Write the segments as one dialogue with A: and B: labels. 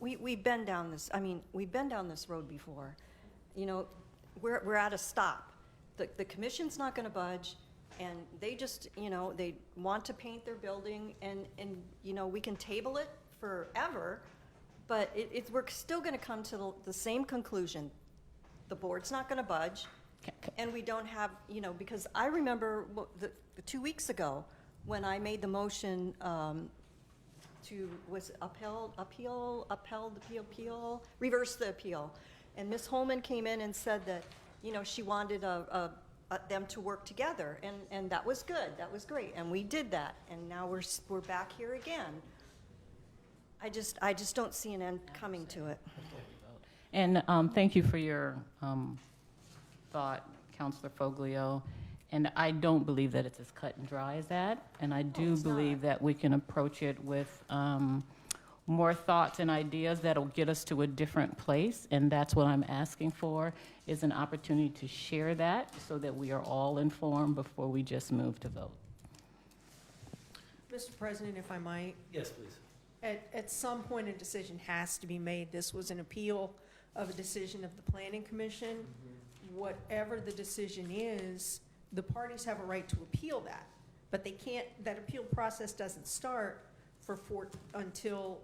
A: We, we've been down this, I mean, we've been down this road before. You know, we're, we're at a stop. The, the commission's not gonna budge, and they just, you know, they want to paint their building, and, and, you know, we can table it forever, but it, it, we're still gonna come to the, the same conclusion. The board's not gonna budge, and we don't have, you know, because I remember what, the, the two weeks ago, when I made the motion, um, to, was upheld, appeal, upheld, appeal, appeal, reverse the appeal. And Ms. Holman came in and said that, you know, she wanted a, a, a- them to work together, and, and that was good, that was great, and we did that, and now we're, s- we're back here again. I just, I just don't see an end coming to it.
B: And um, thank you for your um, thought, Counselor Foglio. And I don't believe that it's as cut and dry as that. And I do believe that we can approach it with um, more thoughts and ideas that'll get us to a different place. And that's what I'm asking for, is an opportunity to share that so that we are all informed before we just move to vote.
C: Mr. President, if I might,
D: Yes, please.
C: at, at some point, a decision has to be made. This was an appeal of a decision of the planning commission. Whatever the decision is, the parties have a right to appeal that. But they can't, that appeal process doesn't start for four, until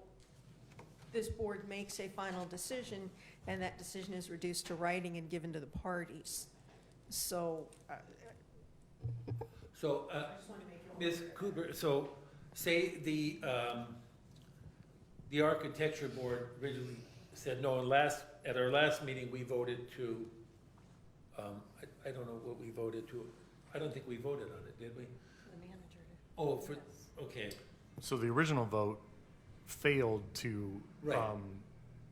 C: this board makes a final decision, and that decision is reduced to writing and given to the parties. So, uh,
D: So, uh, Ms. Cooper, so say the, um, the architecture board originally said no, and last, at our last meeting, we voted to, um, I, I don't know what we voted to, I don't think we voted on it, did we? Oh, for, okay,
E: So the original vote failed to,
D: Right.
E: um,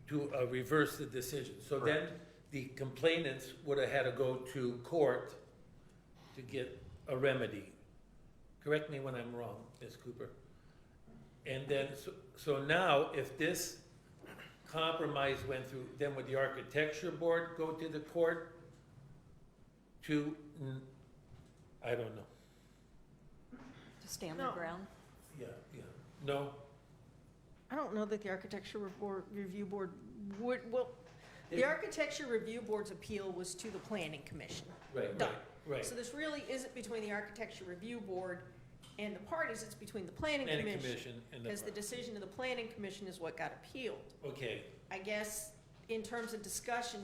D: to uh, reverse the decision. So then the complainants would have had to go to court to get a remedy. Correct me when I'm wrong, Ms. Cooper. And then, so- so now, if this compromise went through, then would the architecture board go to the court to, mm, I don't know.
A: To stand their
C: No.
A: ground.
D: Yeah, yeah. No?
C: I don't know that the Architecture Report, Review Board would, well, the Architecture Review Board's appeal was to the Planning Commission.
D: Right, right,
C: Done.
D: right.
C: So this really isn't between the Architecture Review Board and the parties, it's between the Planning
D: Planning
C: Commission.
D: commission and
C: Because the
D: the,
C: decision of the Planning Commission is what got appealed.
D: okay,
C: I guess, in terms of discussion,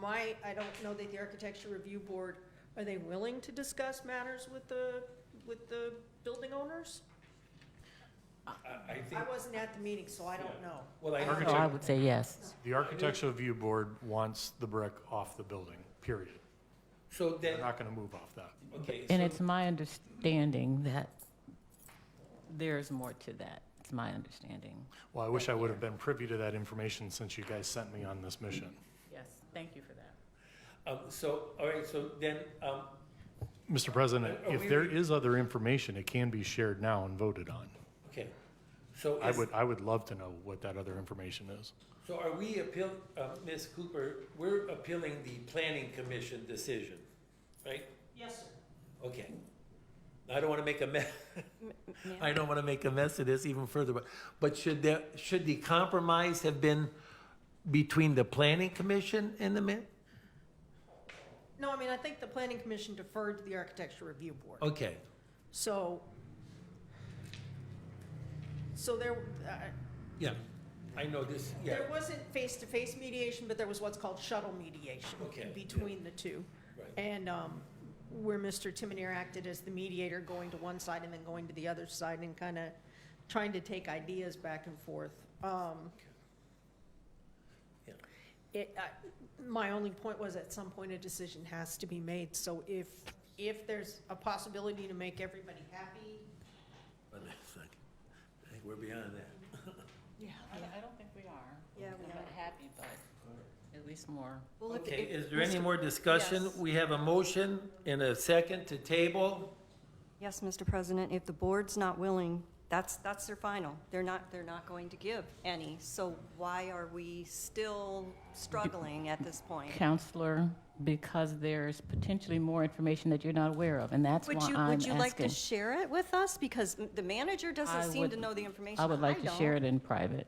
C: my, I don't know that the Architecture Review Board, are they willing to discuss matters with the, with the building owners?
D: I, I think,
C: I wasn't at the meeting, so I don't know.
D: well, I.
B: So I would say yes.
E: the architectural review board wants the brick off the building, period.
D: So then,
E: They're not gonna move off that.
D: okay.
B: And
D: so-
B: it's my understanding that there's more to that. It's my understanding.
E: Well, I wish I would have been privy to that information since you guys sent me on this mission.
B: Yes, thank you for that.
D: Um, so, all right, so then, um,
E: Mr. President,
D: Are- are we-
E: if there is other information, it can be shared now and voted on.
D: okay, so
E: I
D: is-
E: would, I would love to know what that other information is.
D: so are we appeal, uh, Ms. Cooper, we're appealing the planning commission decision, right?
C: Yes, sir.
D: Okay. I don't wanna make a mess,
A: ma'am?
D: I don't wanna make a mess of this even further, but, but should there, should the compromise have been between the planning commission and the min?
C: No, I mean, I think the planning commission deferred to the architecture review board.
D: Okay,
C: So, so there, uh,
D: yeah, I know this, yeah,
C: there wasn't face-to-face mediation, but there was what's called shuttle mediation
D: Okay, yeah.
C: between the two.
D: right,
C: And um, where Mr. Timonier acted as the mediator, going to one side and then going to the other side and kind of trying to take ideas back and forth. Um,
D: Yeah.
C: It, I- my only point was at some point a decision has to be made. So if, if there's a possibility to make everybody happy.
D: but it's like, I think we're beyond that.
C: Yeah.
B: I don't think we are.
A: Yeah, we
B: Not happy, but at least more.
A: Well, if-
D: Okay,
A: if-
D: is there any more discussion?
C: Yes.
D: We have a motion and a second to table.
A: Yes, Mr. President, if the board's not willing, that's, that's their final. They're not, they're not going to give any, so why are we still struggling at this point?
B: Counselor, because there's potentially more information that you're not aware of, and that's why
A: Would you,
B: I'm
A: would you like to
B: asking.
A: share it with us? Because m- the manager
B: I
A: doesn't seem
B: would-
A: to know the information.
B: I would like to
A: don't.
B: share it in private.